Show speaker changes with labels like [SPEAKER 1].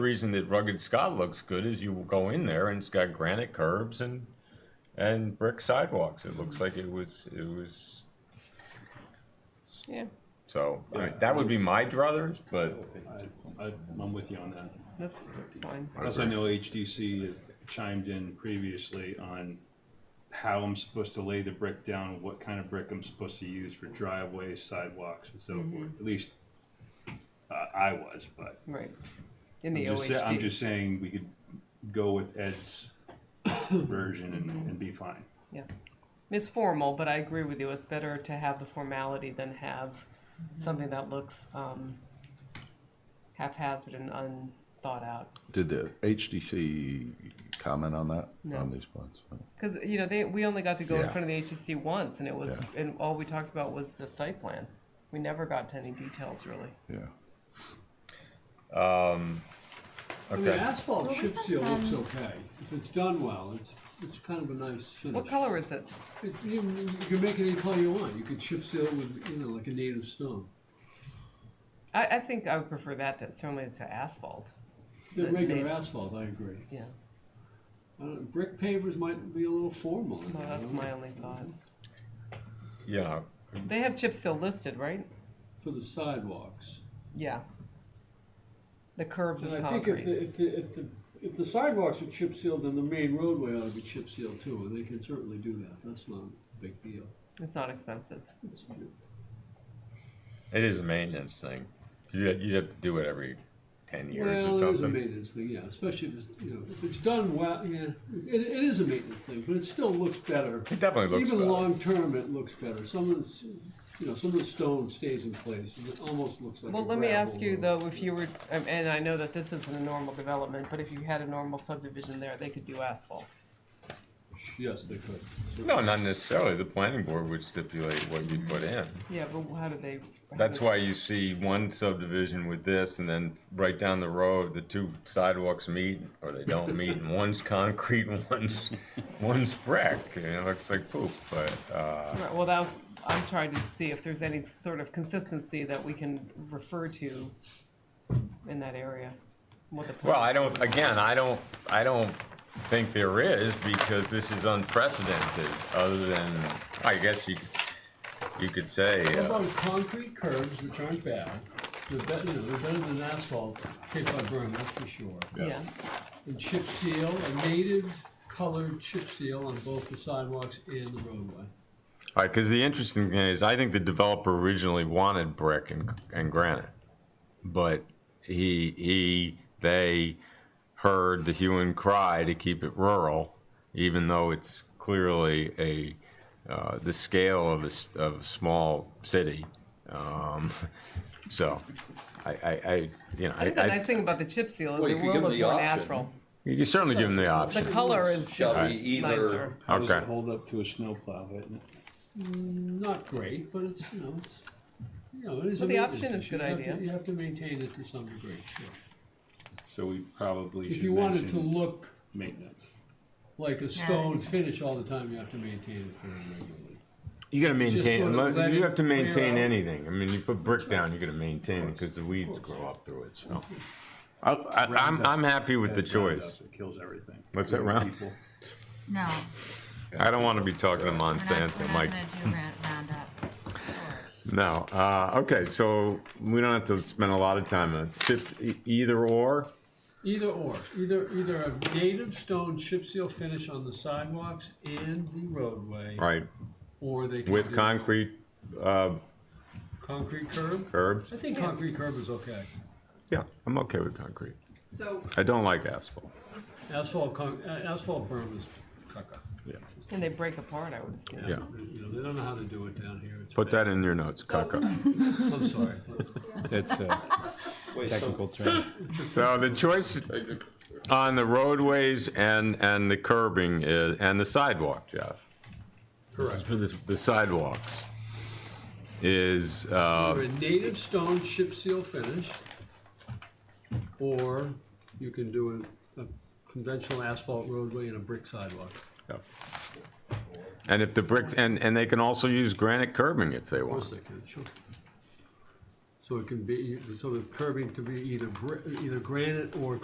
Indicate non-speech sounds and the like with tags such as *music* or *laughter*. [SPEAKER 1] reason that rugged Scott looks good is you go in there and it's got granite curbs and and brick sidewalks. It looks like it was it was
[SPEAKER 2] Yeah,
[SPEAKER 1] so. I mean, that would be my druthers, but
[SPEAKER 3] I, I- I'm with you on that.
[SPEAKER 2] that's, that's fine.
[SPEAKER 3] Plus, I know HDC has chimed in previously on how I'm supposed to lay the brick down, what kind of brick I'm supposed to use for driveways, sidewalks, and so
[SPEAKER 4] Mm-hmm.
[SPEAKER 3] forth. At least, uh, I was, but
[SPEAKER 2] Right. In the
[SPEAKER 3] I'm just, sa- I'm
[SPEAKER 2] OHD.
[SPEAKER 3] just saying we could go with Ed's
[SPEAKER 4] *coughs*
[SPEAKER 3] version and, and be fine.
[SPEAKER 2] Yeah. It's formal, but I agree with you. It's better to have the formality than have something that looks um, haphazard and unthought out.
[SPEAKER 5] Did the HDC comment on that,
[SPEAKER 2] No.
[SPEAKER 5] on these plans?
[SPEAKER 2] Because, you know, they, we only got to go in
[SPEAKER 5] Yeah.
[SPEAKER 2] front of the HCC once and it was, and all we talked about was the site plan. We never got to any details really.
[SPEAKER 5] Yeah.
[SPEAKER 4] I mean,
[SPEAKER 1] okay.
[SPEAKER 4] asphalt
[SPEAKER 6] Well, we
[SPEAKER 4] chip
[SPEAKER 6] have
[SPEAKER 4] seal looks
[SPEAKER 6] some-
[SPEAKER 4] okay, if it's done well, it's, it's kind of a nice finish.
[SPEAKER 2] What color is it?
[SPEAKER 4] It- You, you can make it any color you want, you could chip seal it with, you know, like a native stone.
[SPEAKER 2] I, I think I would prefer that to, certainly to asphalt.
[SPEAKER 4] The
[SPEAKER 2] That's
[SPEAKER 4] regular
[SPEAKER 2] it.
[SPEAKER 4] asphalt, I agree.
[SPEAKER 2] Yeah.
[SPEAKER 4] I don't- Brick pavers might be a little formal. you
[SPEAKER 2] Well, that's
[SPEAKER 4] know,
[SPEAKER 2] my only thought.
[SPEAKER 1] you know,
[SPEAKER 2] They have chip seal listed, right?
[SPEAKER 4] For the sidewalks.
[SPEAKER 2] Yeah. The curbs is
[SPEAKER 4] And I think if
[SPEAKER 2] concrete.
[SPEAKER 4] the, if the, if the, if the sidewalks are chip sealed, then the main roadway ought to be chip sealed too, and they can certainly do that, that's not a big deal.
[SPEAKER 2] It's not expensive.
[SPEAKER 4] It's-
[SPEAKER 1] it is a maintenance thing. You you have to do it every ten years
[SPEAKER 4] Well,
[SPEAKER 1] or
[SPEAKER 4] it is a
[SPEAKER 1] something.
[SPEAKER 4] maintenance thing, yeah, especially if it's, you know, if it's done well, yeah, it, it is a maintenance thing, but it still looks better.
[SPEAKER 1] It definitely looks
[SPEAKER 4] Even
[SPEAKER 1] better.
[SPEAKER 4] long-term, it looks better, some of the, s- you know, some of the stone stays in place, and it almost looks like a
[SPEAKER 2] Well, let me ask
[SPEAKER 4] gravel
[SPEAKER 2] you
[SPEAKER 4] road.
[SPEAKER 2] though, if you were, um, and I know that this isn't a normal development, but if you had a normal subdivision there, they could do asphalt.
[SPEAKER 4] Yes, they could.
[SPEAKER 1] No, not necessarily. The planning board would stipulate what you put in.
[SPEAKER 2] Yeah, but how do they? how
[SPEAKER 1] That's
[SPEAKER 2] do-
[SPEAKER 1] why you see one subdivision with this, and then right down the road, the two sidewalks meet, or they *laughs* don't meet, and one's concrete, and one's, one's brick, you know, it's like poop, but, uh,
[SPEAKER 2] Right, Well, that was, I'm trying to see if there's any sort of consistency that we can refer to in that area. What the.
[SPEAKER 1] well, I don't, again, I don't, I don't think there is, because this is unprecedented, other than, I guess you, you could say,
[SPEAKER 4] What
[SPEAKER 1] uh,
[SPEAKER 4] about concrete curbs, which aren't bad, they're better, you know, they're better than asphalt, Cape Cod berm, that's for sure.
[SPEAKER 2] Yeah,
[SPEAKER 4] And chip seal, a native colored chip seal on both the sidewalks and the roadway.
[SPEAKER 1] All right, because the interesting thing is, I think the developer originally wanted brick and, and granite, but he he they heard the hue and cry to keep it rural, even though it's clearly a uh, the scale of a, s- of a small city. Um, *laughs* so, I, I, I you know
[SPEAKER 2] I
[SPEAKER 1] I,
[SPEAKER 2] think the
[SPEAKER 1] I,
[SPEAKER 2] nice thing about the chip seal is
[SPEAKER 7] Well, you
[SPEAKER 2] it
[SPEAKER 7] could
[SPEAKER 2] will
[SPEAKER 7] give
[SPEAKER 2] look
[SPEAKER 7] them the
[SPEAKER 2] more
[SPEAKER 7] option.
[SPEAKER 2] natural.
[SPEAKER 1] you can certainly give them the
[SPEAKER 2] The
[SPEAKER 1] option.
[SPEAKER 2] color is
[SPEAKER 7] Shall
[SPEAKER 2] just
[SPEAKER 7] we either-
[SPEAKER 2] nicer.
[SPEAKER 3] How does
[SPEAKER 1] Okay.
[SPEAKER 3] it hold up to a snowplow, isn't it?
[SPEAKER 4] Not great, but it's, you know, it's, you know, it is a
[SPEAKER 2] Well, the
[SPEAKER 4] maintenance
[SPEAKER 2] option is
[SPEAKER 4] issue.
[SPEAKER 2] a good
[SPEAKER 4] You have to-
[SPEAKER 2] idea.
[SPEAKER 4] You have to maintain it to some degree, sure.
[SPEAKER 3] So we probably should
[SPEAKER 4] If you want it to
[SPEAKER 3] mention
[SPEAKER 4] look
[SPEAKER 3] maintenance.
[SPEAKER 4] like a stone finish all the time, you have to maintain it fairly regularly.
[SPEAKER 1] You gotta maintain.
[SPEAKER 4] sort of
[SPEAKER 1] unless-
[SPEAKER 4] let
[SPEAKER 1] you
[SPEAKER 4] it
[SPEAKER 1] have to
[SPEAKER 4] clear
[SPEAKER 1] maintain
[SPEAKER 4] out.
[SPEAKER 1] anything. I mean, you put brick down, you're gonna maintain it because the weeds grow up through it. So, I, I, I'm I'm happy with the
[SPEAKER 3] That's roundup,
[SPEAKER 1] choice.
[SPEAKER 3] It kills everything.
[SPEAKER 1] What's that, round-
[SPEAKER 3] People.
[SPEAKER 6] No,
[SPEAKER 1] I don't want to be talking to
[SPEAKER 6] we're not,
[SPEAKER 1] Monsanto,
[SPEAKER 6] we're not
[SPEAKER 1] Mike.
[SPEAKER 6] gonna do Round- Roundup.
[SPEAKER 1] No. Uh, okay, so we don't have to spend a lot of time on it. Fif- e- either or.
[SPEAKER 4] Either or, either, either a native stone chip seal finish on the sidewalks and the roadway,
[SPEAKER 1] Right,
[SPEAKER 4] or they can
[SPEAKER 1] with
[SPEAKER 4] do
[SPEAKER 1] concrete uh,
[SPEAKER 4] Concrete curb?
[SPEAKER 1] curbs.
[SPEAKER 4] I think concrete curb is okay.
[SPEAKER 1] Yeah, I'm okay with concrete.
[SPEAKER 2] So.
[SPEAKER 1] I don't like asphalt.
[SPEAKER 4] Asphalt con, uh, asphalt berm is caca.
[SPEAKER 1] Yeah,
[SPEAKER 2] And they break apart, I would assume.
[SPEAKER 1] yeah.
[SPEAKER 4] You know, they don't know how to do it down here. It's
[SPEAKER 1] Put
[SPEAKER 4] bad.
[SPEAKER 1] that in your notes, Kaka.
[SPEAKER 4] I'm
[SPEAKER 1] *laughs*
[SPEAKER 4] sorry.
[SPEAKER 8] That's a
[SPEAKER 7] Wait, so-
[SPEAKER 8] technical term.
[SPEAKER 1] So the choice on the roadways and and the curbing is, and the sidewalk, Jeff. This is
[SPEAKER 4] Correct.
[SPEAKER 1] for the, the sidewalks. Is uh,
[SPEAKER 4] Either a native stone chip seal finish, or you can do a, a conventional asphalt roadway and a brick sidewalk.
[SPEAKER 1] and if the bricks and and they can also use granite curbing if they
[SPEAKER 4] Of course
[SPEAKER 1] want.
[SPEAKER 4] they can, sure. So it can be, so the curbing can be either, bri- either granite or